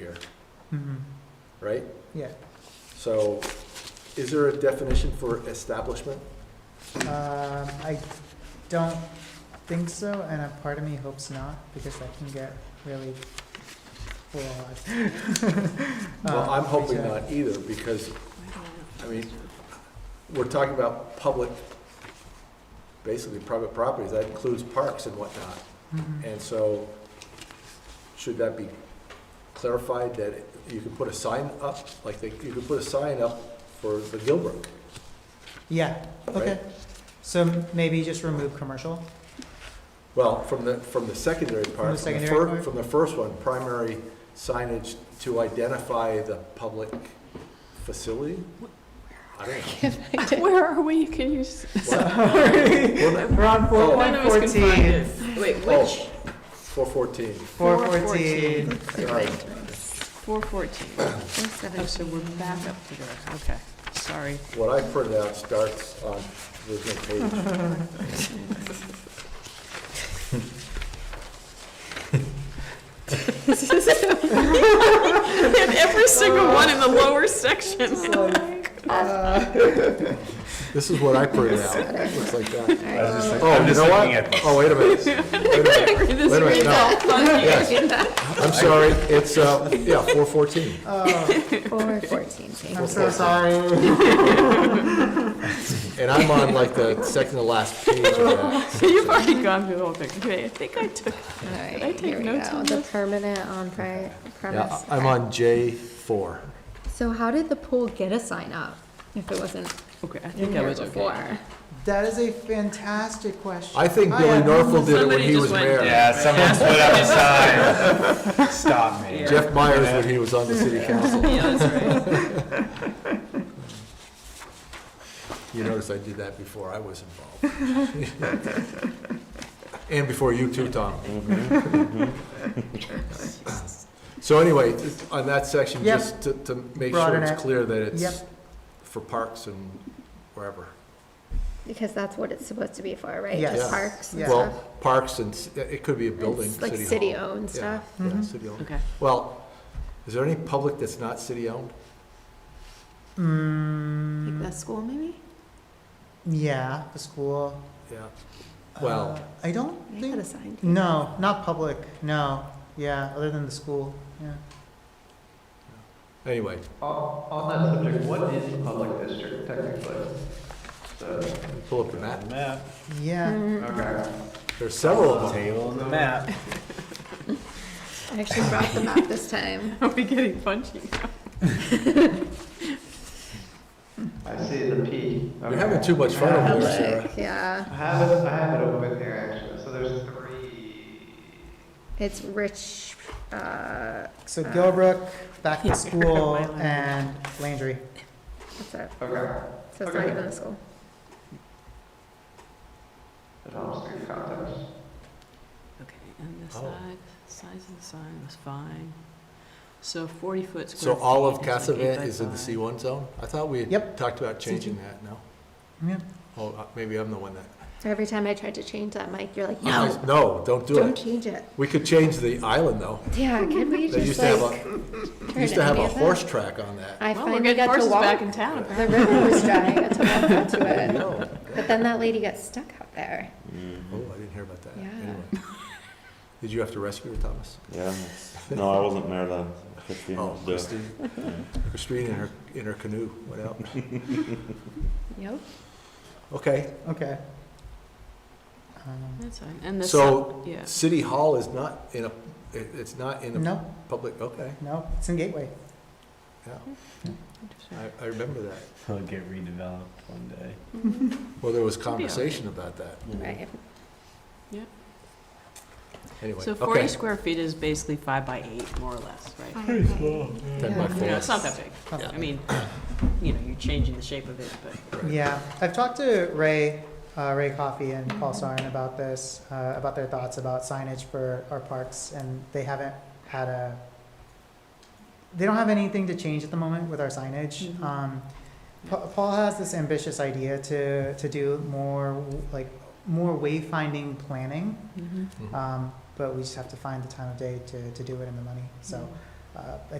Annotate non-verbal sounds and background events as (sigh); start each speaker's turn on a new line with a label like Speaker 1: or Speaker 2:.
Speaker 1: Mm-hmm.
Speaker 2: Mhm.
Speaker 1: right?
Speaker 2: Yeah,
Speaker 1: So is there a definition for establishment?
Speaker 2: um, I don't think so, and a part of me hopes not, because that can get really full
Speaker 1: (laughs)
Speaker 2: Uh,
Speaker 1: Well, I'm
Speaker 2: Um,
Speaker 1: hoping not either, because, I mean, we're talking about public, basically private properties, that includes parks and whatnot. And so, should that be clarified that you can put a sign up, like, they- you can put a sign up for the Gilbrook?
Speaker 2: Yeah, okay, so maybe just remove commercial,
Speaker 1: Well, from the, from the secondary
Speaker 2: From the
Speaker 1: part, from the
Speaker 2: secondary
Speaker 1: fir,
Speaker 2: part?
Speaker 1: from the first one, primary signage to identify the public facility? I don't
Speaker 3: (laughs)
Speaker 1: know.
Speaker 3: Where are we? Can you? s-
Speaker 2: (laughs)
Speaker 1: What? Well,
Speaker 2: we're on four
Speaker 1: Oh.
Speaker 4: None
Speaker 2: point
Speaker 4: of us can find
Speaker 2: fourteen,
Speaker 4: it. Wait, (laughs)
Speaker 1: Oh, four fourteen. Um,
Speaker 2: four fourteen,
Speaker 1: Sorry.
Speaker 3: Four fourteen. Oh, so we're back up to there. Okay, sorry.
Speaker 1: What I printed out starts on the same page.
Speaker 4: And every single one in the lower section. (laughs)
Speaker 1: This is what I printed out. Looks like that.
Speaker 5: I was just like,
Speaker 1: Oh,
Speaker 5: I'm
Speaker 1: you
Speaker 5: just
Speaker 1: know
Speaker 5: looking at
Speaker 1: what?
Speaker 5: this.
Speaker 1: Oh, wait a minute. Wait a minute.
Speaker 4: This
Speaker 1: Wait a minute,
Speaker 4: reads
Speaker 1: no.
Speaker 4: all funky.
Speaker 1: I'm sorry. It's, uh, yeah, four fourteen.
Speaker 6: Four fourteen,
Speaker 2: (laughs)
Speaker 6: thank
Speaker 2: I'm
Speaker 6: you.
Speaker 2: so sorry.
Speaker 1: (laughs) And I'm on like the second to last page of that.
Speaker 4: (laughs) You've already gone through the whole thing. Okay, I think I took,
Speaker 6: All right,
Speaker 4: I take
Speaker 6: here we
Speaker 4: notes
Speaker 6: go.
Speaker 4: on
Speaker 6: The
Speaker 4: this?
Speaker 6: permanent on pri-
Speaker 1: Yeah,
Speaker 6: premise.
Speaker 1: I'm on J four.
Speaker 6: So how did the pool get a sign up if it wasn't
Speaker 4: okay, I
Speaker 6: in
Speaker 4: think I
Speaker 6: here
Speaker 4: was okay.
Speaker 6: before?
Speaker 2: That is a fantastic question.
Speaker 1: I think Billy
Speaker 2: am-
Speaker 1: Norfolk did it when
Speaker 4: Somebody
Speaker 1: he
Speaker 4: just
Speaker 1: was
Speaker 4: went-
Speaker 1: mayor.
Speaker 5: Yeah,
Speaker 4: (laughs)
Speaker 5: someone put up a sign. Stop me.
Speaker 1: Jeff Myers when he was on the city council.
Speaker 4: Yeah, that's right.
Speaker 1: You notice I did that before I was involved. (laughs) And before you too, Tom. So anyway, just on that section,
Speaker 2: Yep.
Speaker 1: just to, to make sure
Speaker 2: Broaden
Speaker 1: it's
Speaker 2: it.
Speaker 1: clear that it's
Speaker 2: Yep.
Speaker 1: for parks and wherever.
Speaker 6: Because that's what it's supposed to be for, right?
Speaker 2: Yes.
Speaker 1: Yeah.
Speaker 6: Just parks and
Speaker 2: Yeah.
Speaker 6: stuff.
Speaker 1: Well, parks and, s- it could be a building,
Speaker 6: It's like
Speaker 1: city hall.
Speaker 6: city-owned
Speaker 1: Yeah,
Speaker 6: stuff.
Speaker 1: Yeah,
Speaker 2: Mhm.
Speaker 1: city-owned.
Speaker 4: Okay. (laughs)
Speaker 1: Well, is there any public that's not city-owned?
Speaker 2: Mm,
Speaker 3: school, maybe?
Speaker 2: yeah, the school.
Speaker 1: Yeah.
Speaker 2: Uh,
Speaker 1: Well-
Speaker 2: I don't
Speaker 3: They had a sign.
Speaker 2: think, no, not public, no, yeah, other than the school, yeah.
Speaker 1: Anyway,
Speaker 7: On that subject, what is the public district technically? The-
Speaker 1: pull up the map.
Speaker 5: Map,
Speaker 2: Yeah,
Speaker 6: Mm,
Speaker 7: Okay.
Speaker 1: There's several of them.
Speaker 5: table
Speaker 7: Hmm.
Speaker 5: and the map.
Speaker 6: I actually brought them up
Speaker 1: (laughs)
Speaker 6: this time.
Speaker 4: Are we getting punchy?
Speaker 7: I see the P.
Speaker 1: You're having too much fun over there, Sarah.
Speaker 6: Public, yeah.
Speaker 7: I have it, I have it open here actually, so there's three.
Speaker 6: It's rich, uh,
Speaker 2: so Gilbrook, back to
Speaker 4: Yeah.
Speaker 2: school,
Speaker 4: My language.
Speaker 2: and Landry.
Speaker 6: what's that?
Speaker 7: Okay.
Speaker 6: So it's not
Speaker 7: Okay.
Speaker 6: even a school.
Speaker 7: It helps in context.
Speaker 4: Okay, and the
Speaker 1: Oh.
Speaker 4: side, size of the sign was fine. So forty foot square.
Speaker 1: So all of
Speaker 4: feet is like eight
Speaker 1: Cassavant
Speaker 4: by
Speaker 1: is in the C1
Speaker 4: five.
Speaker 1: zone? I thought we had
Speaker 2: Yep.
Speaker 1: talked about changing that, no?
Speaker 2: Yeah.
Speaker 1: Oh, uh, maybe I'm the one that.
Speaker 6: Every time I tried to change that, Mike, you're like,
Speaker 1: I
Speaker 6: no,
Speaker 1: was- No, don't do
Speaker 6: don't
Speaker 1: it.
Speaker 6: change it.
Speaker 1: We could change the island, though.
Speaker 6: Yeah, can we
Speaker 1: They used
Speaker 6: just
Speaker 1: to have
Speaker 6: like?
Speaker 1: a,
Speaker 6: turn
Speaker 1: used to have
Speaker 6: any
Speaker 1: a
Speaker 6: of that?
Speaker 1: horse track on
Speaker 6: (laughs)
Speaker 1: that.
Speaker 6: I
Speaker 4: Well, we're
Speaker 6: finally
Speaker 4: getting
Speaker 6: got to
Speaker 4: horses back
Speaker 6: walk.
Speaker 4: in town, apparently.
Speaker 6: The river (laughs) was dry, I got to walk up to
Speaker 1: (laughs)
Speaker 6: it. But then that lady got stuck out there.
Speaker 1: Oh, I didn't hear about that.
Speaker 6: Yeah.
Speaker 1: Anyway. Did you have to rescue her, Thomas?
Speaker 8: Yeah. No, I wasn't there then. Christine
Speaker 1: Oh,
Speaker 8: was there.
Speaker 1: Christine, Christine in her, in her canoe went
Speaker 8: (laughs)
Speaker 1: out.
Speaker 6: Yep.
Speaker 1: Okay,
Speaker 2: Okay. Um,
Speaker 4: That's fine, and the.
Speaker 1: So-
Speaker 4: si- Yeah,
Speaker 1: City Hall is not in a, it- it's not in a
Speaker 2: No,
Speaker 1: public, okay,
Speaker 2: no, it's in Gateway.
Speaker 1: yeah. I, I remember that.
Speaker 5: It'll get redeveloped one day.
Speaker 1: Well, there was
Speaker 4: be okay.
Speaker 1: conversation about that.
Speaker 6: Right.
Speaker 1: Anyway,
Speaker 4: so forty
Speaker 1: okay.
Speaker 4: square feet is basically five by eight, more or less, right?
Speaker 1: Ten
Speaker 6: Yeah.
Speaker 1: by
Speaker 4: You know, it's
Speaker 1: four.
Speaker 4: not that big.
Speaker 2: Yeah.
Speaker 4: I mean, you know, you're changing the shape of it, but.
Speaker 2: Yeah, I've talked to Ray, uh, Ray Coffey and Paul Sarn about this, uh, about their thoughts about signage for our parks, and they haven't had a, they don't have anything to change at the moment with our signage.
Speaker 4: Mhm.
Speaker 2: Um, Pa- Paul has this ambitious idea to, to do more, like, more wayfinding planning,
Speaker 4: Mhm.
Speaker 1: Mhm.
Speaker 6: Mm-hmm.
Speaker 2: um, but we just have to find the time of day to, to do it and the money, so, uh,